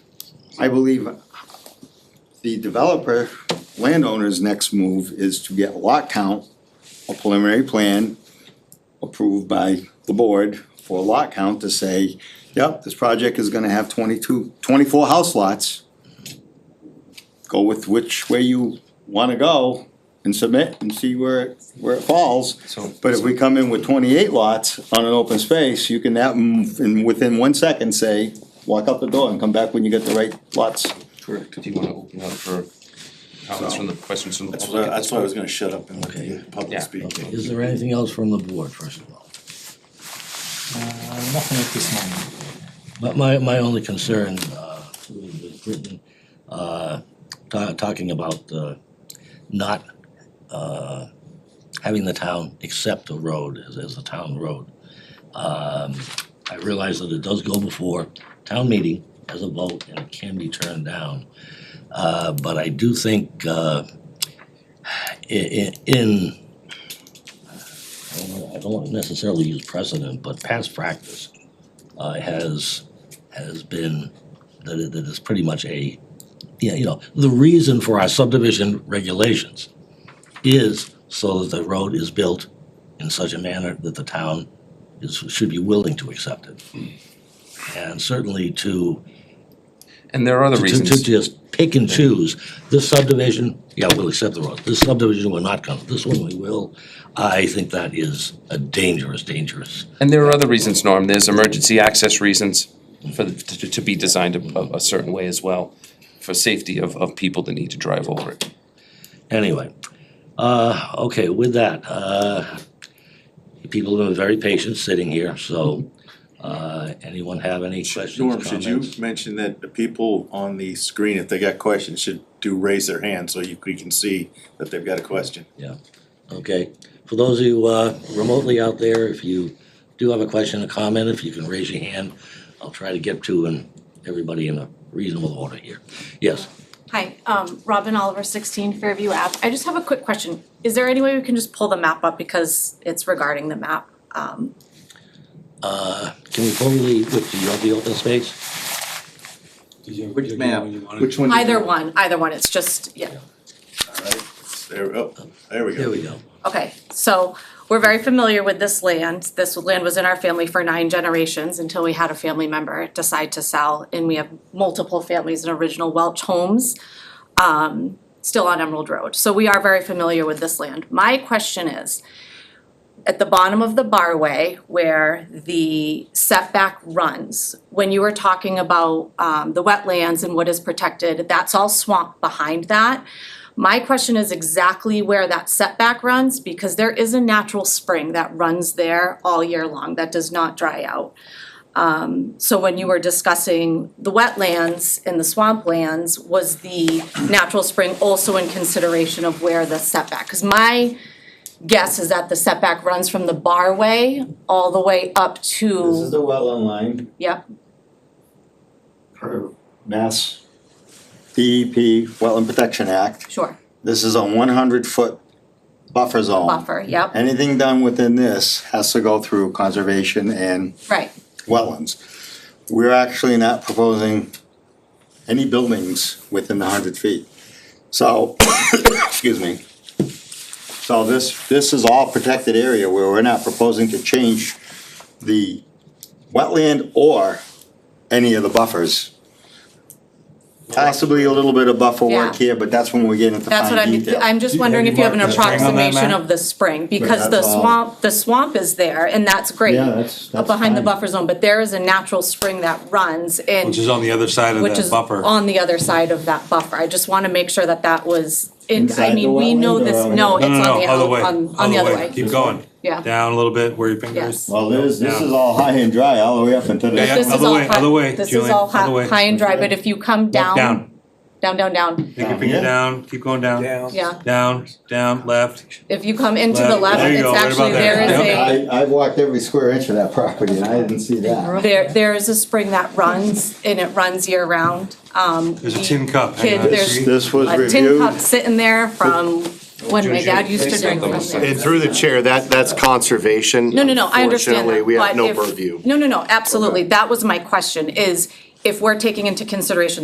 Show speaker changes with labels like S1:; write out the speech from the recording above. S1: I believe the developer, landowner's next move is to get lot count, a preliminary plan approved by the board for a lot count to say, yep, this project is gonna have 22, 24 house lots. Go with which way you wanna go and submit and see where, it- where it falls.
S2: So-
S1: But if we come in with twenty-eight lots on an open space, you can that, mm, in, within one second say, walk out the door and come back when you get the right lots.
S2: Correct. Do you wanna open up for comments from the, questions from the
S3: That's what I,
S2: public?
S3: that's why I was gonna shut up and let you public speak.
S4: Okay, is there anything else from the board, first of all?
S5: Uh, Nothing at this moment.
S4: But my, my only concern, uh, was written, uh, ta- talking about, uh, not, uh, having the town accept a road as, as a town road. Um, I realize that it does go before town meeting as a vote and it can be turned down. Uh, but I do think, uh, i- i- in, I don't know, I don't wanna necessarily use precedent, but past practice, uh, has, has been, that it, that it's pretty much a, yeah, you know, the reason for our subdivision regulations is so that the road is built in such a manner that the town is, should be willing to accept it. And certainly to,
S2: And there are other
S4: to, to- to
S2: reasons.
S4: just pick and choose, this subdivision, yeah, we'll accept the road, this subdivision we're not gonna, this one we will. I think that is a dangerous, dangerous
S2: And there are other reasons, Norm, there's emergency access reasons for, the- to, to be designed a, a- a certain way as well, for safety of, of people that need to drive over it.
S4: Anyway, uh, okay, with that, uh, people have been very patient sitting here, so, uh, anyone have any questions,
S3: Norm, should you
S4: comments?
S3: mention that the people on the screen, if they got questions, should do raise their hand so you we can see that they've got a question?
S4: Yeah, okay. For those of you, uh, remotely out there, if you do have a question, a comment, if you can raise your hand, I'll try to get to and everybody in a reasonable order here. Yes,
S6: Hi, um, Robin Oliver, sixteen Fairview Ave. I just have a quick question. Is there any way we can just pull the map up because it's regarding the map? Um,
S4: uh, can we pull the, with, do you have the open space?
S3: Which map? Which one?
S6: either one, either one, it's just, yeah,
S3: There, oh, there we
S4: There
S3: go.
S4: we go.
S6: okay. So we're very familiar with this land. This land was in our family for nine generations until we had a family member decide to sell. And we have multiple families in original Welch homes, um, still on Emerald Road. So we are very familiar with this land. My question is, at the bottom of the barway where the setback runs, when you were talking about um, the wetlands and what is protected, that's all swamp behind that. My question is exactly where that setback runs, because there is a natural spring that runs there all year long, that does not dry out. Um, so when you were discussing the wetlands and the swamplands, was the natural spring also in consideration of where the setback? Because my guess is that the setback runs from the barway all the way up to,
S1: the wetland line.
S6: yep,
S1: Per Mass DEP Wetland Protection Act.
S6: sure,
S1: This is a one hundred foot buffer zone.
S6: buffer, yep,
S1: Anything done within this has to go through conservation and
S6: right,
S1: wetlands. We're actually not proposing any buildings within the hundred feet. So, excuse me. So this, this is all protected area where we're not proposing to change the wetland or any of the buffers. Possibly a little bit of buffer work
S6: Yeah.
S1: here, but that's when we get into
S6: that's what
S1: fine
S6: I'm,
S1: detail.
S6: I'm just wondering if you have an
S5: marked the spring on that
S6: approximation
S5: map?
S6: of the spring, because the
S1: that's all.
S6: swamp, the swamp is there, and that's great.
S1: Yeah, that's-
S6: uh,
S1: that's
S6: Behind the
S1: fine.
S6: buffer zone, but there is a natural spring that runs and.
S5: Which is on the other side of
S6: which
S5: that
S6: is
S5: buffer.
S6: on the other side of that buffer. I just wanna make sure that that was, in
S1: Inside
S6: I
S1: the
S6: mean, we
S1: wetland
S6: know
S1: or
S6: this,
S1: on the-
S6: no, it's
S5: No,
S6: on
S5: no,
S6: the,
S5: no, other way,
S6: out- on, on the other way.
S5: Keep going.
S6: Yeah.
S5: Down a little bit where your finger
S6: Yes.
S5: is.
S1: Well, there's, this is
S5: Down.
S1: all high and dry all the way up until
S5: Yeah, yeah.
S1: the
S6: This is
S5: Other
S6: all
S5: way,
S6: high-
S5: other way,
S6: This is
S5: Julian,
S6: all
S5: other
S6: high,
S5: way.
S6: high and dry, but if you come down,
S5: Down.
S6: down, down, down,
S5: Take your finger
S1: Yeah.
S5: down, keep going down.
S7: down.
S6: yeah.
S5: Down, down, left.
S6: If you come into the
S5: Left.
S6: left,
S5: There you
S6: it's
S5: go, right about
S6: actually,
S5: there.
S6: there is a,
S1: I, I've walked every square inch of that property and I didn't see that.
S6: there, there is a spring that runs and it runs year round. Um,
S5: There's a
S6: we-
S5: tin cup. Hang
S6: Kid,
S5: on.
S6: there's
S1: This was
S6: a tin cup sitting there from when my
S2: Juju,
S6: dad used to
S2: please
S6: drink
S2: don't
S6: from
S2: go.
S6: there.
S8: And through the chair, that, that's conservation.
S6: No, no, no, I understand
S8: Unfortunately,
S6: that,
S8: we have
S6: but
S8: no
S6: if-
S8: purview.
S6: No, no, no, absolutely, that was my question, is if we're taking into consideration